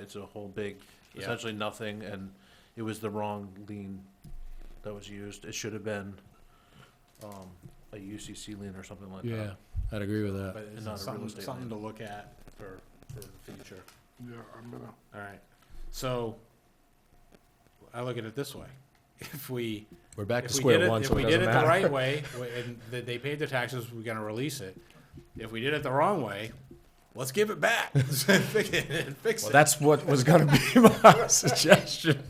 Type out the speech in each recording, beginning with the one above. It's a whole big, Yeah. essentially nothing, and it was the wrong lien that was used. It should have been, um, a UCC lien or something like Yeah, that. I'd agree with that. Uh, But it's not a real something, estate something lien. to look at for, for the future. Yeah, I'm gonna, All right. So I look at it this way. If we, We're back to if we did square it, one, if so we it did doesn't it the right matter. way w- and th- they paid their taxes, we're gonna release it. If we did it the wrong way, let's give it back. Fix it. Fix Well, it. that's what was gonna be my suggestion.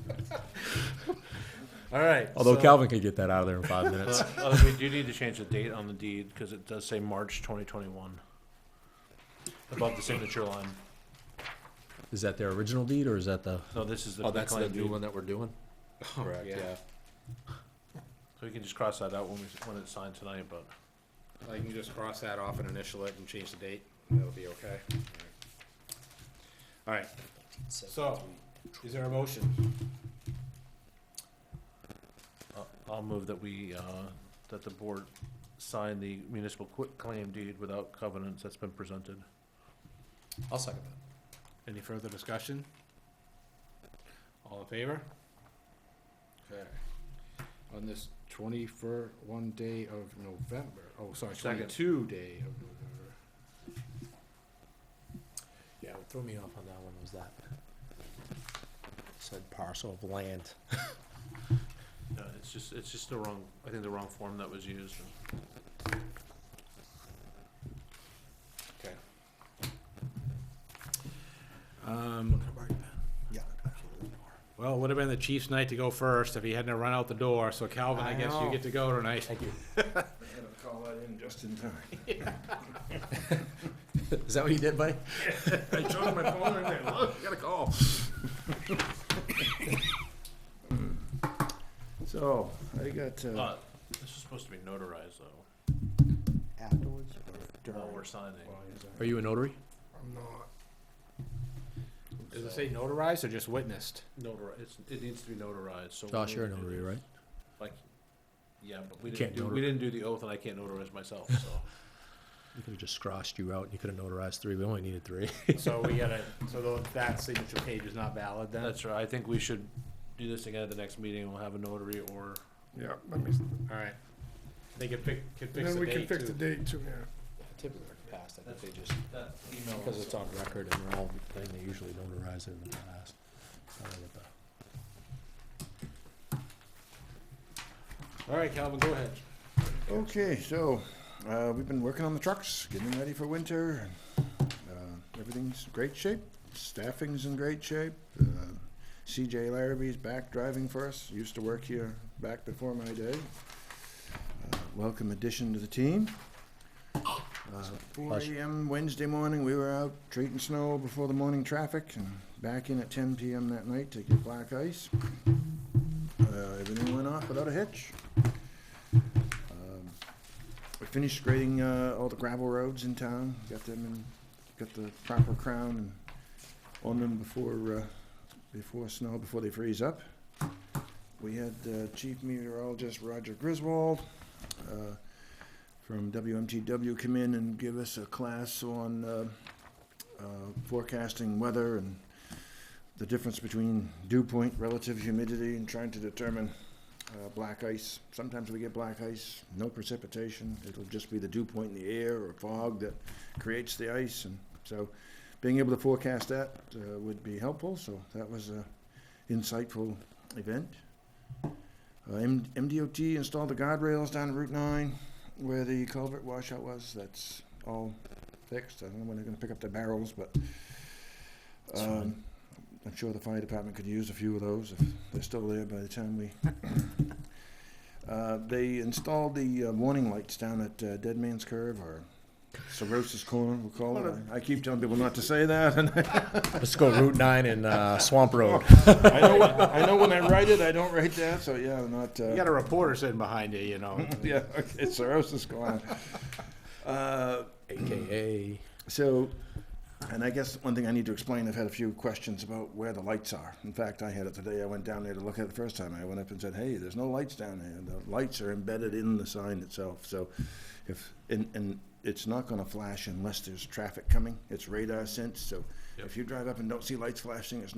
All right. Although so- Calvin could get that out of there in five minutes. But, uh, we do need to change the date on the deed, cause it does say March twenty twenty-one. Above the signature line. Is that their original deed or is that the? No, this is the Oh, that's the reclaimed new deed. one that we're doing? Correct, yeah. yeah. So we can just cross that out when we, when it's signed tonight, but I can just cross that off and initial it and change the date. That'll be okay. All right. So, is there a motion? I'll move that we, uh, that the board sign the municipal claim deed without covenants that's been presented. I'll second that. Any further discussion? All in favor? Okay. On this twenty-first, one day of November, oh, sorry, Second. twenty-two day of November. Yeah, what threw me off on Oh, that one was that. Said parcel of land. No, it's just, it's just the wrong, I think the wrong form that was used. Okay. Um, well, it would have been the Chiefs' night to go first if he hadn't have run out the door, so Calvin, I I guess you know. get to go tonight. I'm gonna call that in just in time. Is that what you did, buddy? I showed him my phone and I look, got a call. So, I got, uh, Uh, this is supposed to be notarized though, Afterwards or while we're signing. Are Uh, you a notary? I'm not, Does it say notarized or just witnessed? Notarized, it's, it needs to be notarized, so. Josh, we- you're a notary, right? Like, yeah, but we You didn't can't do, notar- we didn't do the oath and I can't notarize myself, so. You could have just crossed you out and you could have notarized three. We only needed three. So we gotta, so tho- that signature page is not valid then? That's right, I think we should do this again at the next meeting, we'll have a notary or, yeah, let me, Alright. They could pick, could and fix then the we can date fix the too. date too, yeah. Typically passed, I think they just, that email. because it's on record and they're all, They usually notarize it in the past. I don't know what the- Alright, Calvin, go ahead. Okay, so, uh, we've been working on the trucks, getting them ready for winter. Uh, Everything's in great shape, staffing's in great shape. Uh, CJ Larrabee's back driving for us, used to work here back before my day. Uh, Welcome addition to the team. Uh, Four Pleasure. AM Wednesday morning, we were out treating snow before the morning traffic and back in at ten PM that night to get black ice. Uh, Everything went off without a hitch. Um, We finished grading uh, all the gravel roads in town, got them in, got the proper crown and on them before, uh, before snow, before they freeze up. We had uh, Chief Meteorologist Roger Griswold uh, from WMTW come in and give us a class on uh, uh, forecasting weather and the difference between dew point, relative humidity, and trying to determine uh, black ice. Sometimes we get black ice, no precipitation. It'll just be the dew point in the air or fog that creates the ice. And so being able to forecast that uh, would be helpful. So that was an insightful event. Uh, M- MDOT installed the guardrails down Route 9 where the culvert washout was. That's all fixed. I don't know when they're going to pick up the barrels, but It's fine. um, I'm sure the fire department could use a few of those if they're still there by the time we uh, they installed the uh, warning lights down at uh, Dead Man's Curve or Cirrhosis Corner, we'll call it. I I keep telling people not to say that, and Let's go Route nine and uh, Swamp Road. I know, I know when I write it, I don't write that, so yeah, I'm not. You uh, got a reporter sitting behind you, you know. Yeah, okay, Cirrhosis Corner. Uh, AKA. So, and I guess one thing I need to explain, I've had a few questions about where the lights are. In fact, I had it today, I went down there to look at it the first time, I went up and said, hey, there's no lights down there, the lights are embedded in the sign itself, so if, and, and it's not gonna flash unless there's traffic coming, it's radar sense, so Yep. If you drive up and don't see lights flashing, it's